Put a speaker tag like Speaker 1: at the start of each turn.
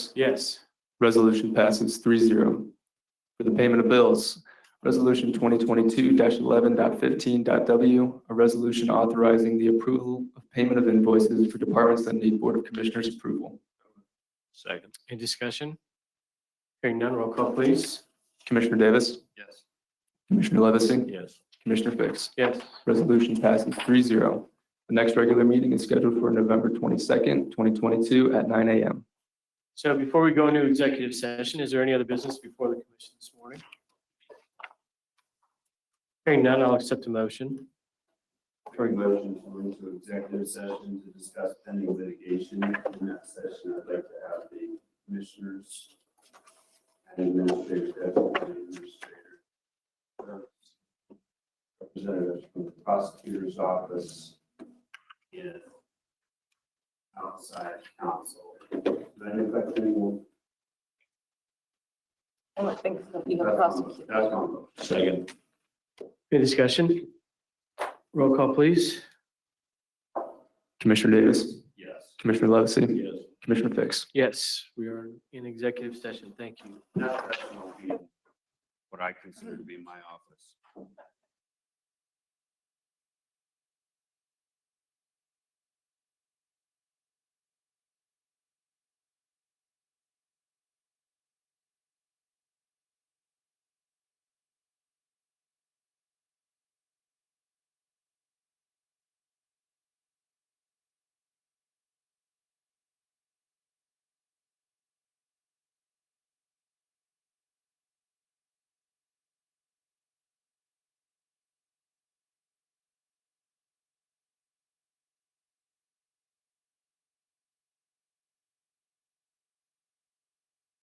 Speaker 1: Yes.
Speaker 2: Yes. Resolution passes three zero. For the payment of bills, Resolution twenty twenty-two 1115w a resolution authorizing the approval of payment of invoices for departments that need Board of Commissioners approval.
Speaker 1: Second.
Speaker 3: Any discussion? Hearing none, roll call please.
Speaker 2: Commissioner Davis,
Speaker 1: Yes.
Speaker 2: Commissioner Levesey,
Speaker 1: Yes.
Speaker 2: Commissioner Fix.
Speaker 3: Yes.
Speaker 2: Resolution passes three zero. The next regular meeting is scheduled for November twenty-second, twenty twenty-two at nine AM.
Speaker 3: So before we go into executive session, is there any other business before the commission this morning? Hearing none, I'll accept a motion.
Speaker 4: Current motion to go into executive session to discuss pending litigation. In that session, I'd like to have the commissioners and administrative deputy administrator. uh, Representatives from the prosecutor's office and outside counsel. Does that affect anyone?
Speaker 5: I don't think so. you have a
Speaker 4: That's my-
Speaker 5: prosecutor.
Speaker 4: that's my motion. Second.
Speaker 3: Any discussion? Roll call please.
Speaker 2: Commissioner Davis,
Speaker 4: Yes.
Speaker 2: Commissioner Levesey,
Speaker 4: Yes.
Speaker 2: Commissioner Fix.
Speaker 3: Yes, we are in executive session. Thank you.
Speaker 4: That session will be what I consider to be my office.